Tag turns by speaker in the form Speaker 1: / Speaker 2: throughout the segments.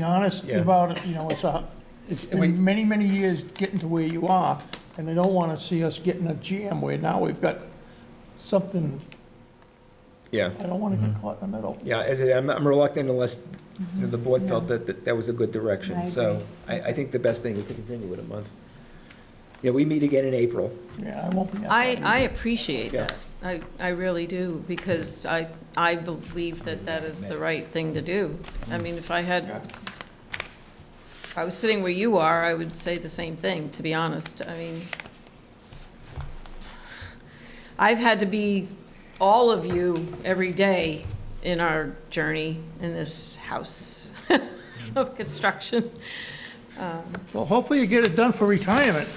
Speaker 1: Be honest
Speaker 2: Yeah.
Speaker 1: about it, you know, it's a, it's
Speaker 2: And we-
Speaker 1: been many, many years getting to where you are, and they don't wanna see us getting a jam where now we've got something,
Speaker 2: Yeah,
Speaker 1: I don't wanna get caught in the middle.
Speaker 2: yeah, as I, I'm I'm reluctant unless you know, the board felt that, that that was a good
Speaker 3: I
Speaker 2: direction. So Mm-hmm. I, I think the best thing is to continue with a month. Yeah, we meet again in April.
Speaker 1: Yeah, I won't be. out
Speaker 3: I,
Speaker 1: there.
Speaker 3: I appreciate
Speaker 2: Yeah.
Speaker 3: that. I, I really do, because I, I believe that that is the right thing to do. I mean, if I
Speaker 1: Yeah.
Speaker 3: had, if I was sitting where you are, I would say the same thing, to be honest. I mean, I've had to be all of you every day in our journey in this house of construction.
Speaker 1: Well, hopefully you get it done for retirement.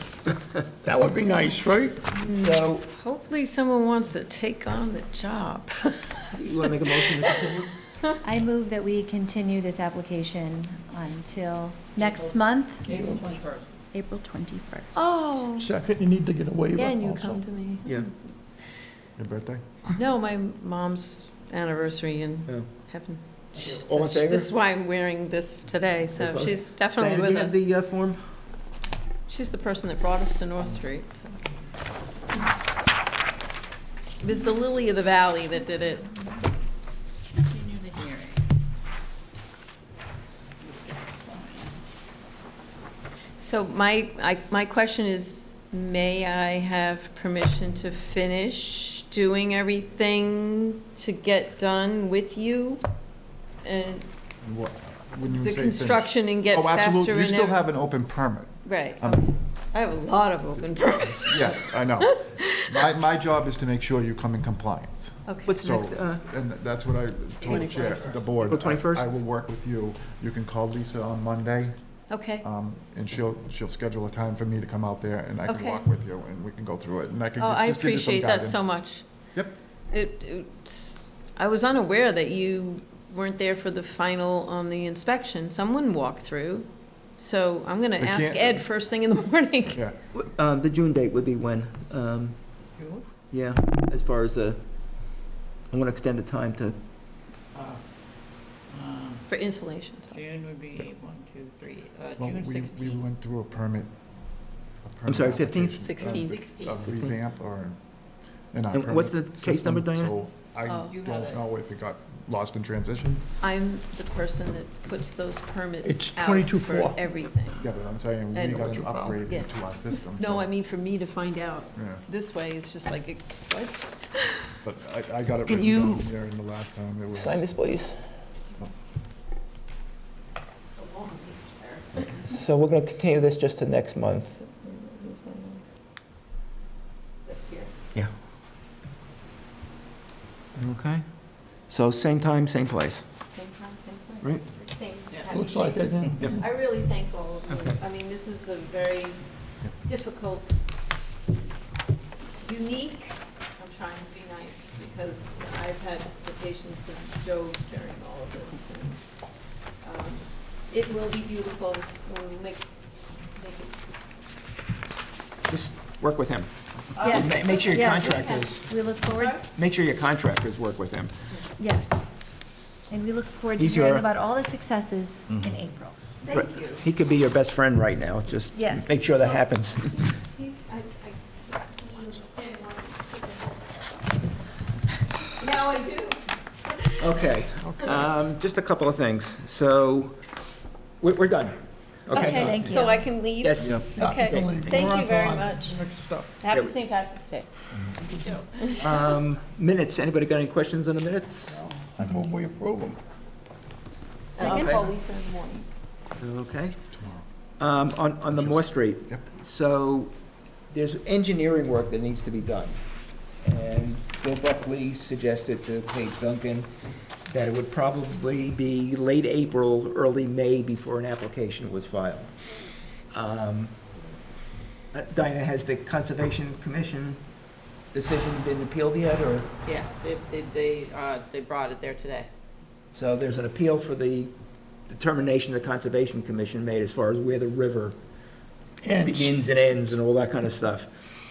Speaker 1: That would be nice, right?
Speaker 2: So,
Speaker 3: Hopefully, someone wants to take on the job.
Speaker 2: you want to make a motion to continue?
Speaker 4: I move that we continue this application until next month? April 21st. April 21st.
Speaker 3: Oh,
Speaker 1: Second, you need to get a waiver
Speaker 3: yeah, and you
Speaker 1: also.
Speaker 3: come to me.
Speaker 2: Yeah,
Speaker 5: Your birthday?
Speaker 3: No, my mom's anniversary in
Speaker 2: yeah. Oh,
Speaker 3: heaven.
Speaker 2: All in favor?
Speaker 3: This is why I'm wearing this today, so
Speaker 2: Opposed?
Speaker 3: she's definitely with us.
Speaker 2: the uh, form?
Speaker 3: She's the person that brought us to North Street, so. It was the Lily of the Valley that did it. So my, I, my question is, may I have permission to finish doing everything to get done with you? And
Speaker 5: And what- When you
Speaker 3: the
Speaker 5: say
Speaker 3: construction and get
Speaker 5: finished- Oh,
Speaker 3: faster and
Speaker 5: absolutely. You still
Speaker 3: every-
Speaker 5: have an open permit.
Speaker 3: Right,
Speaker 5: Um,
Speaker 3: okay. I have a lot of open permits.
Speaker 5: Yes, I know. My, my job is to make sure you come in compliance.
Speaker 3: Okay,
Speaker 5: So, and that's what I told the Chair, the board.
Speaker 2: April 21st?
Speaker 5: I will work with you. You can call Lisa on Monday,
Speaker 3: okay.
Speaker 5: um, and she'll, she'll schedule a time for me to come out there, and I can
Speaker 3: Okay.
Speaker 5: walk with you, and we can go through it, and I can
Speaker 3: Oh, I
Speaker 5: just give you some
Speaker 3: appreciate that so
Speaker 5: guidance.
Speaker 3: much.
Speaker 5: Yep.
Speaker 3: It, it's, I was unaware that you weren't there for the final on the inspection. Someone walked through. So I'm gonna
Speaker 5: They
Speaker 3: ask
Speaker 5: can't-
Speaker 3: Ed first thing in the morning.
Speaker 5: Yeah.
Speaker 6: Um, the June date would be when? Um,
Speaker 1: June?
Speaker 6: yeah, as far as the, I want to extend the time to,
Speaker 3: For insulation, so.
Speaker 7: June would be one, two, three, uh,
Speaker 5: Well,
Speaker 7: June
Speaker 5: we- We
Speaker 7: sixteenth.
Speaker 5: went through a permit. a permit
Speaker 6: sorry, 15th?
Speaker 5: application.
Speaker 3: 16.
Speaker 5: a
Speaker 7: 16th.
Speaker 6: Sixteen.
Speaker 5: revamp or an
Speaker 6: And what's the
Speaker 5: permit
Speaker 6: case number,
Speaker 5: system,
Speaker 6: Diana?
Speaker 5: So I
Speaker 3: Oh.
Speaker 7: You have
Speaker 5: don't
Speaker 7: it.
Speaker 5: know if it got lost in transition.
Speaker 3: I'm the person that puts those permits
Speaker 1: It's
Speaker 3: out
Speaker 1: 22.4.
Speaker 3: for everything.
Speaker 5: Yeah, but I'm saying we
Speaker 3: And-
Speaker 5: got to upgrade
Speaker 3: Yeah.
Speaker 5: it to our system.
Speaker 3: No,
Speaker 5: so-
Speaker 3: I mean for me to find out.
Speaker 5: Yeah,
Speaker 3: This way, it's just like, a- what?
Speaker 5: but I, I got it
Speaker 7: Can
Speaker 5: written
Speaker 7: you-
Speaker 5: down here in the last time it was.
Speaker 7: Sign this, please.
Speaker 6: so we're going to continue this just to next month.
Speaker 3: This here.
Speaker 6: Okay. So same time, same place.
Speaker 3: Same time, same place.
Speaker 6: Right.
Speaker 3: Same
Speaker 7: Yeah.
Speaker 3: happy
Speaker 1: Looks like it,
Speaker 3: faces.
Speaker 1: yeah.
Speaker 3: I really thank all of you.
Speaker 6: Okay.
Speaker 3: I mean, this is a very difficult, unique, I'm trying to be nice, because I've had the patience of Joe during all of this. and, um, It will be beautiful, we'll make, make it.
Speaker 6: Just work with him.
Speaker 4: Yes.
Speaker 6: Ma- Make sure your
Speaker 4: Yes.
Speaker 6: contractors,
Speaker 4: We look forward,
Speaker 6: make sure your contractors work with him.
Speaker 4: yes. And we look forward to
Speaker 6: He's
Speaker 4: hearing
Speaker 6: your-
Speaker 4: about all the successes
Speaker 6: Mm-hmm.
Speaker 4: in April.
Speaker 3: Thank you.
Speaker 6: He could be your best friend right now, just
Speaker 4: Yes.
Speaker 6: make sure that happens.
Speaker 3: He's, I, I just, he was standing on the seat. Now I do.
Speaker 6: Okay, um, just a couple of things. So, we're, we're done.
Speaker 4: Okay, thank
Speaker 3: So
Speaker 4: you.
Speaker 3: I can leave?
Speaker 6: Yes.
Speaker 3: Okay,
Speaker 1: Believe me.
Speaker 3: thank
Speaker 1: We're
Speaker 3: you very
Speaker 1: on.
Speaker 3: much.
Speaker 1: Next up.
Speaker 6: Yeah.
Speaker 3: Happy St. Patrick's Day.
Speaker 6: Um, minutes, anybody got any questions on the minutes?
Speaker 1: I move we approve them.
Speaker 3: I'll
Speaker 6: Okay.
Speaker 3: call Lisa in the morning.
Speaker 6: Okay. Um, on, on the Moore Street.
Speaker 5: Yep.
Speaker 6: So there's engineering work that needs to be done. And Bill Buckley suggested to Paige Duncan that it would probably be late April, early May before an application was filed. Um, uh, Dinah, has the Conservation Commission decision been appealed yet, or,
Speaker 7: Yeah, they, they, they, uh, they brought it there today.
Speaker 6: so there's an appeal for the determination the Conservation Commission made as far as where the river
Speaker 1: And
Speaker 6: begins and ends and all that kind of stuff.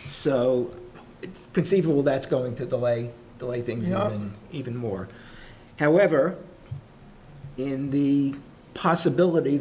Speaker 6: So it's conceivable that's going to delay, delay things
Speaker 1: Yeah.
Speaker 6: even, even more. However, in the possibility